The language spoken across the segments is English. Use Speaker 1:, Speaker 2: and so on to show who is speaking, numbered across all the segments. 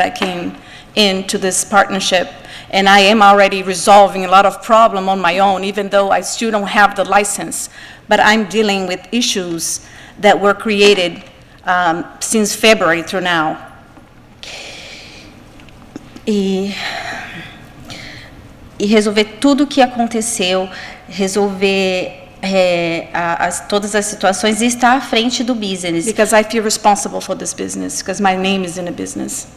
Speaker 1: that came into this partnership. And I am already resolving a lot of problem on my own, even though I still don't have the license. But I'm dealing with issues that were created um, since February through now. E e resolver tudo o que aconteceu, resolver é, a- as- todas as situações e estar à frente do business.
Speaker 2: Because I feel responsible for this business, because my name is in the business.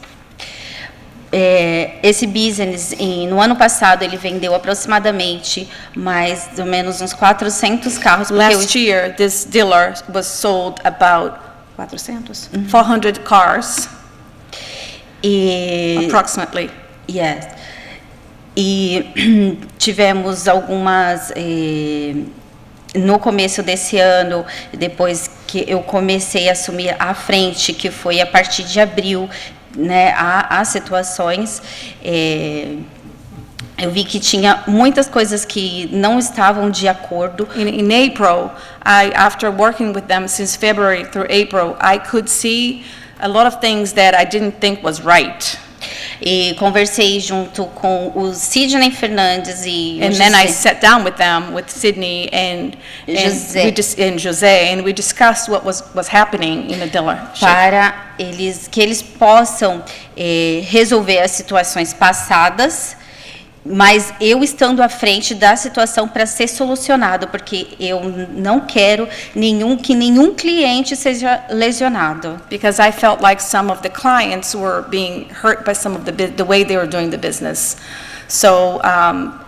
Speaker 1: É, esse business, em- no ano passado, ele vendeu aproximadamente mais ou menos uns 400 carros. porque eu-
Speaker 2: Last year, this dealer was sold about
Speaker 1: Mm-hmm.
Speaker 2: 400? 400 cars,
Speaker 1: e,
Speaker 2: approximately.
Speaker 1: yes. e tivemos algumas... é, no começo desse ano, depois que eu comecei a assumir a frente, que foi a partir de abril, né, há, há situações, eh, eu vi que tinha muitas coisas que não estavam de acordo,
Speaker 2: In, in April, I, after working with them since February through April, I could see a lot of things that I didn't think was right.
Speaker 1: e conversei junto com o Sidney Fernandes e o
Speaker 2: And then I
Speaker 1: José.
Speaker 2: sat down with them, with Sydney and, and
Speaker 1: José.
Speaker 2: we dis- and José, and we discussed what was, was happening in the dealership.
Speaker 1: para eles que eles possam eh, resolver as situações passadas, mas eu estando à frente da situação para ser solucionado, porque eu não quero nenhum que nenhum cliente seja lesionado.
Speaker 2: because I felt like some of the clients were being hurt by some of the, bu- the way they were doing the business. So, um,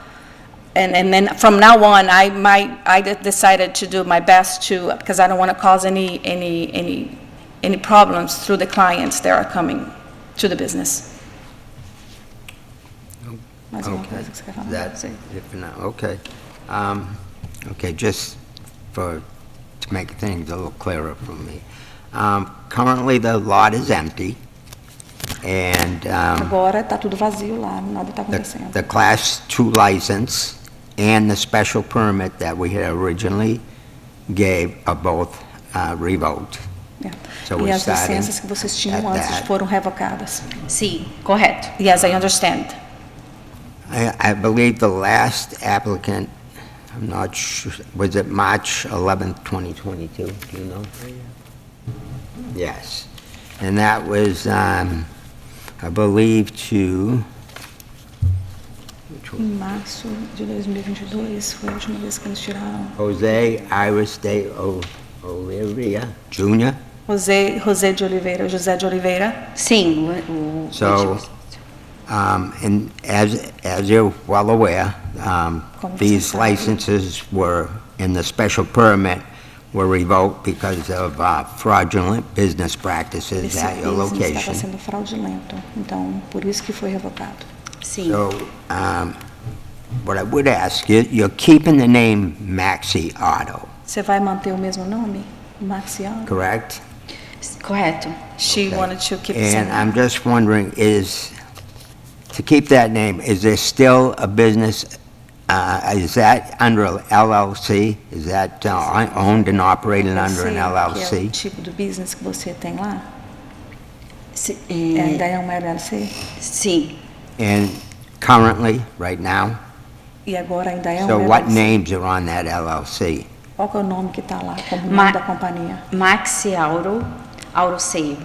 Speaker 2: and, and then from now on, I might, I de- decided to do my best to, because I don't want to cause any, any, any, any problems through the clients that are coming to the business. Mais alguma coisa que você quer falar?
Speaker 3: That, if not, okay. Um, Okay, just for, to make things a little clearer for me. Um, Currently, the lot is empty, and um,
Speaker 4: Agora tá tudo vazio lá, nada tá
Speaker 3: the
Speaker 4: acontecendo.
Speaker 3: the Class 2 license and the special permit that we had originally gave are both uh, revoked.
Speaker 4: É.
Speaker 3: So
Speaker 4: E
Speaker 3: we're
Speaker 4: as
Speaker 3: starting
Speaker 4: licenças que vocês tinham
Speaker 3: at
Speaker 4: antes
Speaker 3: that.
Speaker 4: foram revocadas.
Speaker 1: Sim, correto.
Speaker 2: Yes, I understand.
Speaker 3: I I believe the last applicant, I'm not sure, was it March 11th, 2022? Do you know? Yes. And that was, um, I believe, to,
Speaker 4: Em março de 2022 foi a última vez que eles tiraram.
Speaker 3: Jose Iris de O- Oliveira Jr.
Speaker 2: José, José de Oliveira, José de Oliveira.
Speaker 1: Sim, o, o
Speaker 3: So, um, and as, as you're well aware, um,
Speaker 4: Como
Speaker 3: these
Speaker 4: você sabe.
Speaker 3: licenses were, and the special permit were revoked because of uh, fraudulent business practices
Speaker 4: Esse
Speaker 3: at your
Speaker 4: business estava
Speaker 3: location.
Speaker 4: sendo fraudulento, então por isso que foi revocado.
Speaker 1: sim.
Speaker 3: So, um, what I would ask, you- you're keeping the name Maxi Auto,
Speaker 4: Você vai manter o mesmo nome? Marciano?
Speaker 3: correct?
Speaker 1: Correto.
Speaker 2: She
Speaker 3: Okay.
Speaker 2: wanted to keep the same.
Speaker 3: And I'm just wondering, is, to keep that name, is there still a business, uh, is that under a LLC? Is that uh, on- owned and operated under an
Speaker 4: Você, que é o
Speaker 3: LLC?
Speaker 4: tipo do business que você tem lá?
Speaker 1: Si-
Speaker 4: É,
Speaker 1: é,
Speaker 4: ainda é uma LLC?
Speaker 1: sim.
Speaker 3: And currently, right now?
Speaker 4: E agora ainda é uma
Speaker 3: So what
Speaker 4: LLC?
Speaker 3: names are on that LLC?
Speaker 4: Qual que é o nome que tá lá, como nome
Speaker 1: Ma-
Speaker 4: da companhia?
Speaker 1: Maxi Auro, Auroseio.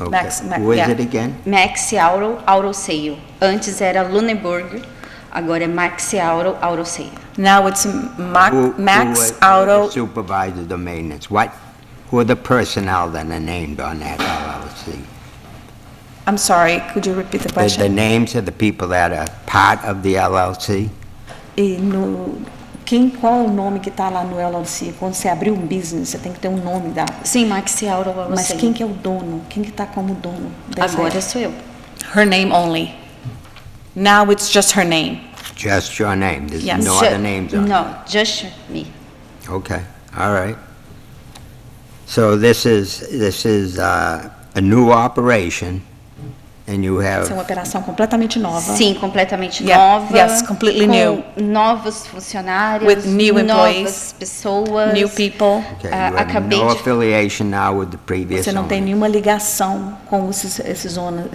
Speaker 3: Okay.
Speaker 2: Max- Ma-
Speaker 3: Who is
Speaker 2: yeah.
Speaker 3: it again?
Speaker 1: Maxi Auro, Auroseio. Antes era Luneburg, agora é Maxi Auro, Auroseio.
Speaker 2: Now it's Mac-
Speaker 3: Who- who
Speaker 2: Max
Speaker 3: was-
Speaker 2: Auto
Speaker 3: Supervisor the maintenance, what, who are the personnel that are named on that LLC?
Speaker 2: I'm sorry, could you repeat the
Speaker 3: The- The
Speaker 2: question?
Speaker 3: names of the people that are part of the LLC?
Speaker 4: E no, quem, qual é o nome que está lá no LLC? Quando você abrir um business, você tem que ter um nome da...
Speaker 1: Sim, Maxi Auro, Auroseio.
Speaker 4: Mas quem que é o dono? Quem que está como dono? dessa-
Speaker 1: Agora sou eu.
Speaker 2: é Her name only. Now it's just her name.
Speaker 3: Just your name, there's
Speaker 2: Yes.
Speaker 3: no
Speaker 1: Ju-
Speaker 3: other names on it?
Speaker 1: No, just me.
Speaker 3: Okay, all right. So this is, this is uh, a new operation And you
Speaker 4: Essa é uma
Speaker 3: have,
Speaker 4: operação completamente nova.
Speaker 1: Sim, completamente
Speaker 2: Yeah,
Speaker 1: nova.
Speaker 2: yes, completely
Speaker 1: com
Speaker 2: new.
Speaker 1: Novos funcionários,
Speaker 2: With new
Speaker 1: novas
Speaker 2: employees,
Speaker 1: pessoas.
Speaker 2: new people.
Speaker 3: okay,
Speaker 1: Ah,
Speaker 3: you have
Speaker 1: acabei
Speaker 3: no
Speaker 1: de-
Speaker 3: affiliation now with the previous
Speaker 4: Você não tem
Speaker 3: owner.
Speaker 4: nenhuma ligação com esses, esses, owner-